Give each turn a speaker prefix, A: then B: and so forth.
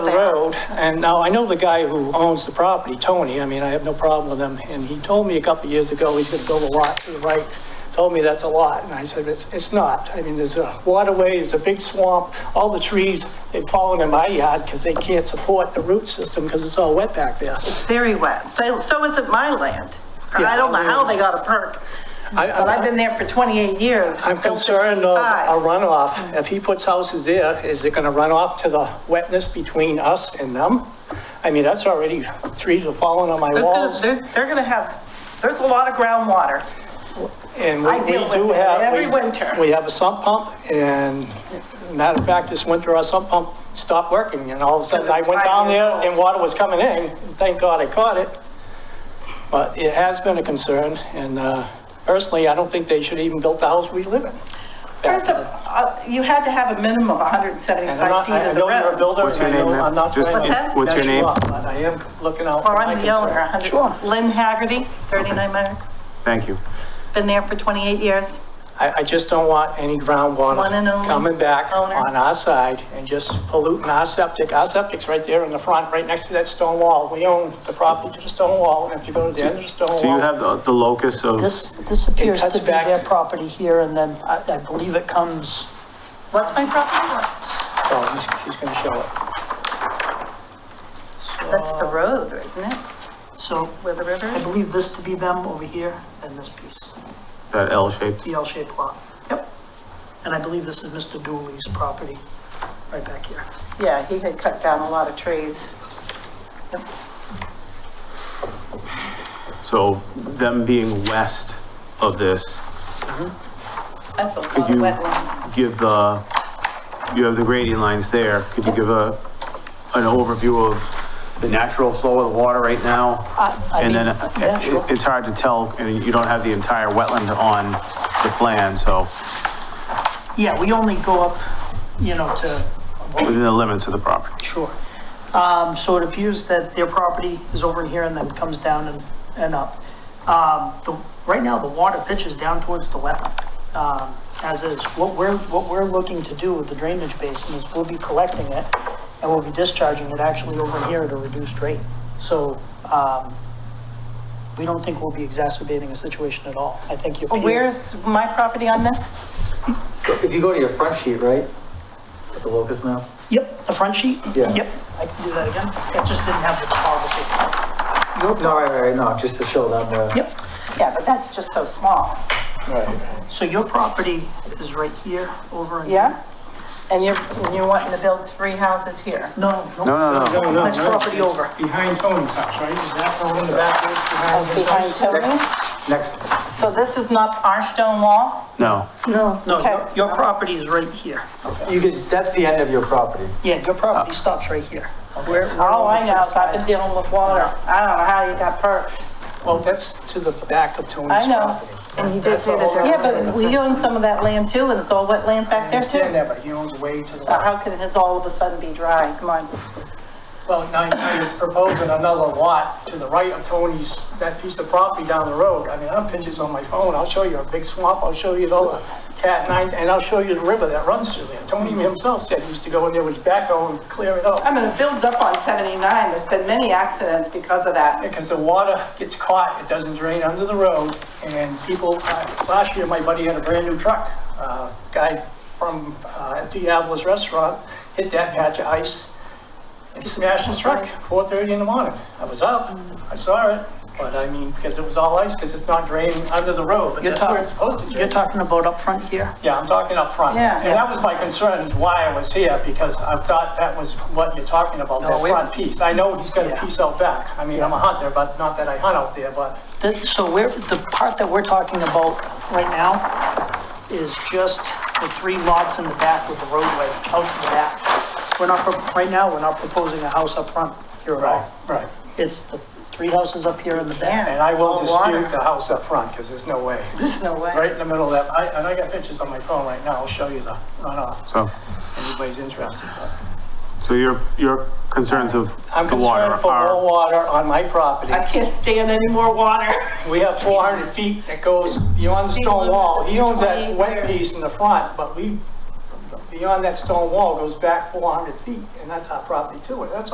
A: road, and now I know the guy who owns the property, Tony, I mean, I have no problem with him, and he told me a couple of years ago, he's gonna build a lot to the right, told me that's a lot, and I said, it's, it's not. I mean, there's a waterway, there's a big swamp, all the trees, they've fallen in my yard because they can't support the root system because it's all wet back there.
B: It's very wet. So, so is it my land. I don't know how they got a perk,
A: I-
B: but I've been there for 28 years.
A: I'm concerned of a
B: Five.
A: runoff. If he puts houses there, is it going to run off to the wetness between us and them? I mean, that's already, trees are falling on my
B: There's gonna-
A: walls.
B: They're, they're gonna have, there's a lot of groundwater.
A: And
B: I
A: we
B: deal
A: we
B: with
A: do
B: it
A: have.
B: every
A: we-
B: winter.
A: We have a sump pump and matter of fact, this winter our sump pump stopped working and all of a sudden I
B: it's
A: went
B: five
A: down
B: years
A: there
B: old.
A: and water was coming in. Thank God I caught it. But it has been a concern and uh, personally, I don't think they should even build the house we live in.
B: First of, uh, you had to have a minimum of 175 feet
A: I
B: of the
A: know you're a
B: road.
A: builder,
C: What's
A: and
C: your
A: I know
C: name, ma'am?
A: I'm not
C: Just-
A: trying
B: What's
A: to.
B: that?
C: what's your
A: mess you
C: name?
A: up, But I am looking out for
B: Well,
A: my
B: I'm the owner,
A: concern.
B: 100, Lynn Haggerty, 39 Max,
C: Thank you.
B: been there for 28 years.
A: I, I just don't want any
B: One and
A: groundwater
B: only
A: coming back
B: owner.
A: on our side and just polluting our septic. Our septic's right there in the front, right next to that stone wall. We own the property to the stone wall, and if you go to the end of the stone
C: Do you
A: wall,
C: have the the locus of,
D: This, this appears to
A: cuts
D: be
A: back-
D: their property here, and then I, I believe it comes,
B: What's my property?
A: oh, he's- he's gonna show it.
B: That's the road, isn't it?
D: so
B: Where the river
D: I
B: is?
D: believe this to be them over here, and this piece,
C: that L shaped?
D: the L-shaped lot. Yep. And I believe this is Mr. Dooley's property, right back here.
B: Yeah, he had cut down a lot of trees.
C: So them being west of this,
B: That's a lot
C: could
B: of
C: you
B: wetlands.
C: give the, you have the grading lines there. Could you give a, an overview of the natural flow of the water right now?
D: Uh, I
C: And
D: mean,
C: then
D: yeah,
C: uh,
D: sure.
C: it- it's hard to tell, and you don't have the entire wetland on the plan, so
D: Yeah, we only go up, you know, to
C: within the limits of the property.
D: Sure. Um, so it appears that their property is over in here and then comes down and, and up. Um, the, right now, the water pitches down towards the wetland, um, as is. What we're, what we're looking to do with the drainage basin is we'll be collecting it and we'll be discharging it actually over in here at a reduced rate. So, um, we don't think we'll be exacerbating a situation at all. I think you're.
B: Where's my property on this?
E: If you go to your front sheet, right? With the locust map?
D: Yep, the front sheet?
E: Yeah.
D: Yep, I can do that again. I just didn't have the topography.
E: Nope. No, right, right, right, no, just to show them the.
D: Yep.
B: Yeah, but that's just so small.
E: Right.
D: So your property is right here, over in...
B: Yeah? And you're, and you're wanting to build three houses here?
D: No,
C: No,
D: no,
C: no, no.
D: next property over.
A: Behind Tony's house, right? Is that the one in the back there behind his
B: Behind
A: house?
B: Tony?
E: Next,
B: So this is not our stone wall?
C: No.
D: No, your-
B: Okay.
D: your property is right here.
E: you could, that's the end of your property.
D: Yeah, your property
C: Ah.
D: stops right here. We're- we're
B: All
D: over
B: Oh, I
D: to the
B: know is I've
D: side.
B: been dealing with water. I don't know how you got perks.
A: Well, that's to the back of Tony's
B: I
A: property.
B: know.
F: And he did say that there.
B: Yeah,
F: were
B: but we own some of that land too, and it's all wetlands back
A: I
B: there
A: understand
B: too.
A: that, but he owns way to the
B: But
A: left.
B: how can his all of a sudden be dry? Come on.
A: Well, now you're proposing another lot to the right of Tony's, that piece of property down the road. I mean, I have pictures on my phone, I'll show you a big swamp, I'll show you all the cat nine, and I'll show you the river that runs through there. Tony himself said he used to go in there with his backhoe and clear it
B: I
A: up.
B: mean, it builds up on 79. There's been many accidents because of that.
A: Because the water gets caught, it doesn't drain under the road, and people, uh, last year, my buddy had a brand-new truck. Uh, Guy from uh, Diablo's Restaurant hit that patch of ice and smashed his truck, 4:30 in the morning. I was up, I saw it, but I mean, because it was all ice, because it's not draining under the road, but
D: You're
A: that's where
D: talking-
A: it's supposed to
D: You're
A: drain.
D: talking about up front here?
A: Yeah, I'm talking up front.
B: Yeah.
A: And that was my concern, is why I was here, because I thought that was what you're talking about, that
D: No, we-
A: front piece. I know he's got a
D: Yeah.
A: piece out back. I mean, I'm a hunter, but not that I hunt out there, but
D: That- So we're, the part that we're talking about right now is just the three lots in the back with the roadway out to the back. We're not, pro- right now, we're not proposing a house up front here at all.
A: right.
D: It's the three houses up here in the back.
A: And I will
B: Oh, water.
A: dispute the house up front, because there's no way.
B: There's no way.
A: Right in the middle of that, I- and I got pictures on my phone right now, I'll show you the runoff,
C: So,
A: if anybody's interested. but-
C: so your, your concerns of
A: I'm
C: the water
A: concerned for
C: are.
A: low water on my property.
B: I can't stand any more water.
A: We have 400 feet that goes beyond the stone wall. He owns that wet piece in the front, but we, beyond that stone wall goes back 400 feet, and that's our property too. And that's